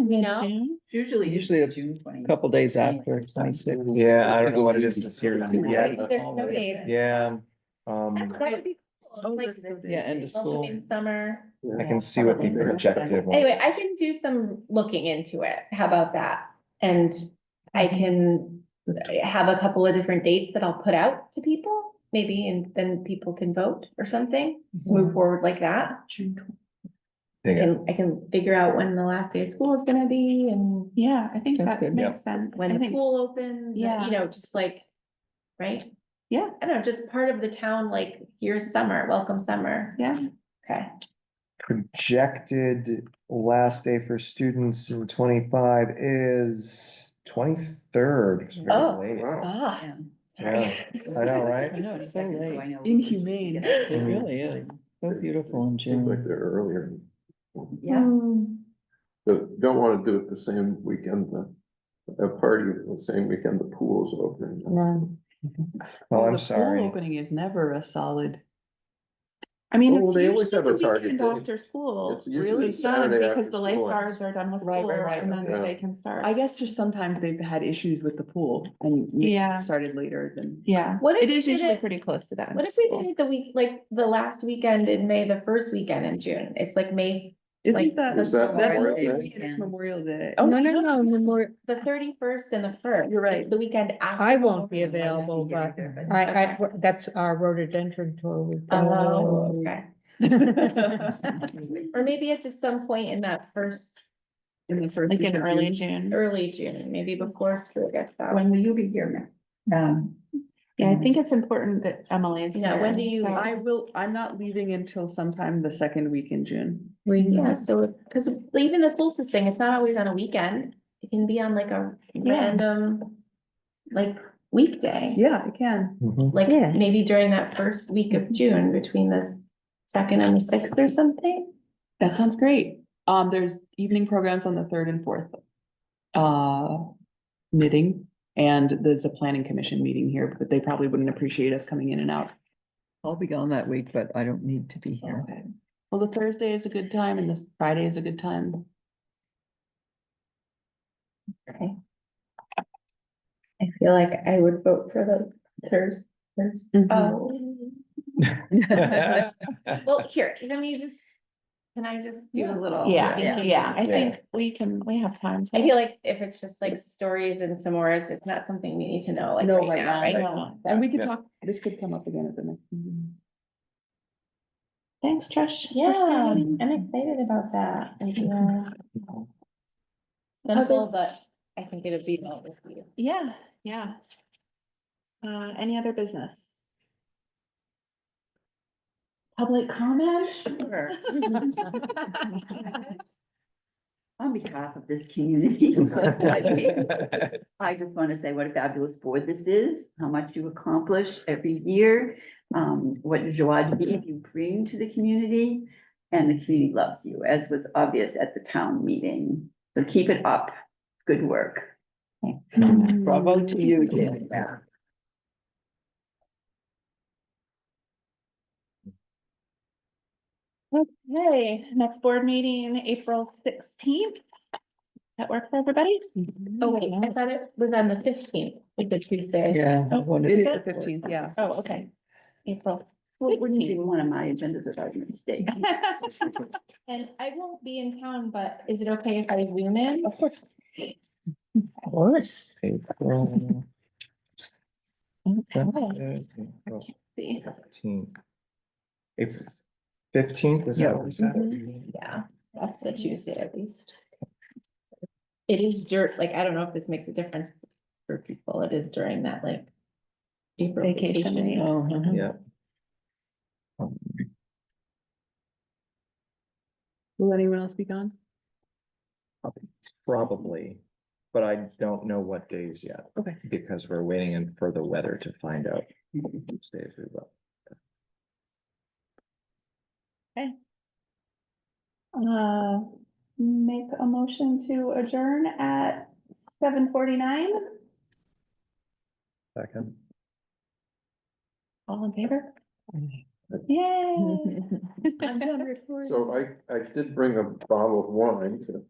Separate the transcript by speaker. Speaker 1: we know?
Speaker 2: Usually,
Speaker 3: Usually a
Speaker 2: June twenty.
Speaker 3: Couple days after twenty-six.
Speaker 4: Yeah, I don't know what it is this year.
Speaker 3: Yeah.
Speaker 1: There's no days.
Speaker 4: Yeah, um,
Speaker 1: That would be
Speaker 2: Oh,
Speaker 1: cool. It's
Speaker 2: this is-
Speaker 1: like
Speaker 3: Yeah, end of
Speaker 1: Little
Speaker 3: school.
Speaker 1: in summer.
Speaker 4: I can see what the projected one.
Speaker 1: Anyway, I
Speaker 4: is.
Speaker 1: can do some looking into it. How about that? And I can uh, have a couple of different dates that I'll put out to people, maybe, and then people can vote or something. Just move forward like that.
Speaker 4: Yeah.
Speaker 1: And I can figure out when the last day of school is gonna be and
Speaker 2: Yeah, I think
Speaker 3: Sounds
Speaker 2: that
Speaker 3: good.
Speaker 4: Yeah.
Speaker 2: makes sense. I
Speaker 1: when the
Speaker 2: think-
Speaker 1: pool opens, and,
Speaker 2: Yeah.
Speaker 1: you know, just like, right?
Speaker 2: Yeah.
Speaker 1: I don't know, just part of the town, like, here's summer, welcome summer.
Speaker 2: Yeah,
Speaker 1: Okay.
Speaker 4: Projected last day for students in twenty-five is twenty-third.
Speaker 1: Oh.
Speaker 4: I
Speaker 1: Ah,
Speaker 2: Yeah.
Speaker 1: sorry.
Speaker 4: know, right? Mm-hmm.
Speaker 3: I know, it's so late.
Speaker 5: Inhumane.
Speaker 3: It really is. So beautiful in
Speaker 6: Seems like
Speaker 3: June.
Speaker 6: they're earlier,
Speaker 2: Yeah.
Speaker 1: Hmm.
Speaker 6: but don't wanna do it the same weekend, the, a party the same weekend the pool's open.
Speaker 4: Well,
Speaker 5: the pool
Speaker 4: I'm sorry.
Speaker 5: Opening is never a solid.
Speaker 2: I mean,
Speaker 6: Well,
Speaker 2: it's
Speaker 6: they always have a
Speaker 2: usually the
Speaker 6: target
Speaker 2: weekend
Speaker 6: date.
Speaker 2: after school,
Speaker 6: It's usually
Speaker 2: really, it's done
Speaker 6: Saturday
Speaker 2: because
Speaker 6: after
Speaker 2: the
Speaker 6: school ends.
Speaker 2: lifeguards are done with
Speaker 5: Right,
Speaker 2: school
Speaker 5: right, right,
Speaker 2: and then
Speaker 6: okay.
Speaker 2: they can start.
Speaker 5: I guess just sometimes they've had issues with the pool and you
Speaker 2: Yeah.
Speaker 5: started later than.
Speaker 2: Yeah,
Speaker 1: What if
Speaker 2: it
Speaker 1: we
Speaker 2: is
Speaker 1: did
Speaker 2: usually
Speaker 1: it-
Speaker 2: pretty close to that.
Speaker 1: What if we did it the week, like, the last weekend in May, the first weekend in June? It's like May, Like-
Speaker 5: Isn't that?
Speaker 6: Is that
Speaker 5: that's-
Speaker 6: Memorial Day
Speaker 5: It's
Speaker 2: weekend?
Speaker 5: Memorial Day.
Speaker 7: No, Oh, no, no, Memorial,
Speaker 1: the thirty-first and the first.
Speaker 5: You're right.
Speaker 1: It's The weekend after.
Speaker 7: I won't be
Speaker 8: Oh,
Speaker 1: Memorial Day.
Speaker 7: available, but I, I, that's our rhododendron tour. we've done.
Speaker 1: Oh, okay.
Speaker 5: In
Speaker 1: Or maybe at just some point in that first,
Speaker 5: the first.
Speaker 2: Like
Speaker 5: week
Speaker 2: in
Speaker 5: of
Speaker 2: early
Speaker 5: June.
Speaker 2: June.
Speaker 1: early June, maybe before school gets out.
Speaker 2: When will you be here, Um, yeah, I think it's important that Emily is
Speaker 1: Yeah,
Speaker 2: here.
Speaker 1: when do you-
Speaker 2: so-
Speaker 5: I will, I'm not leaving until sometime the second week in June.
Speaker 7: We,
Speaker 1: Yeah, so, because even the solstice thing, it's not always on a weekend. It can be on like a random, like weekday.
Speaker 5: Yeah, I can.
Speaker 4: Mhm.
Speaker 1: Like
Speaker 7: Yeah.
Speaker 1: maybe during that first week of June between the second and the sixth or something.
Speaker 5: That sounds great. Um, there's evening programs on the third and fourth. Uh, knitting and there's a planning commission meeting here, but they probably wouldn't appreciate us coming in and out.
Speaker 3: I'll be gone that week, but I don't need to be here.
Speaker 5: Okay. Well, the Thursday is a good time and the Friday is a good time.
Speaker 1: I feel like I would vote for the Thursday. Oh, well, here, let me just, can I just do a little?
Speaker 2: Yeah,
Speaker 1: thinking?
Speaker 2: yeah, I
Speaker 6: Yeah.
Speaker 2: think we can, we have time. to-
Speaker 1: I feel like if it's just like stories and s'mores, it's not something we need to know like
Speaker 5: No,
Speaker 1: right
Speaker 5: right
Speaker 1: now,
Speaker 5: now,
Speaker 1: right?
Speaker 5: right
Speaker 1: now.
Speaker 5: And we could
Speaker 6: Yeah.
Speaker 5: talk, this could come up again at the next. meeting.
Speaker 2: Thanks, Trish. for
Speaker 1: Yeah,
Speaker 2: sharing.
Speaker 1: I'm excited about that. Yeah. Simple, but I think it'd be well with you.
Speaker 2: Yeah, yeah. Uh, any other business? Public comment?
Speaker 8: On behalf of this community, I just want to say what a fabulous board this is, how much you accomplish every year, um, what joie de vivre you bring to the community, and the community loves you, as was obvious at the town meeting. So keep it up. Good work.
Speaker 3: Bravo to you, Jan.
Speaker 2: Okay, next board meeting, April sixteenth. That work for everybody?
Speaker 1: Oh, wait, I thought it was on the fifteenth, like the Tuesday.
Speaker 3: Yeah. I wanted
Speaker 5: It is
Speaker 3: to-
Speaker 5: the fifteenth, yeah.
Speaker 2: Oh, okay. April.
Speaker 8: Well, wouldn't be one of my agendas without a mistake.
Speaker 1: And I won't be in town, but is it okay if I zoom in?
Speaker 7: Of course.
Speaker 3: Of course. April.
Speaker 2: See.
Speaker 4: Fifteenth, is that what we said?
Speaker 1: Yeah, that's the Tuesday at least. It is dirt, like, I don't know if this makes a difference for people. It is during that like. April
Speaker 2: Vacation,
Speaker 1: vacation.
Speaker 2: yeah.
Speaker 3: Oh, uh-huh.
Speaker 4: Yeah. Um,
Speaker 5: Will anyone else be gone?
Speaker 4: Probably, but I don't know what days yet.
Speaker 5: Okay.
Speaker 4: Because we're waiting in for the weather to find out. which days we will.
Speaker 2: Uh, make a motion to adjourn at seven forty-nine.
Speaker 4: Second.
Speaker 2: All in favor? Yay.
Speaker 6: So I, I did bring a bottle of wine to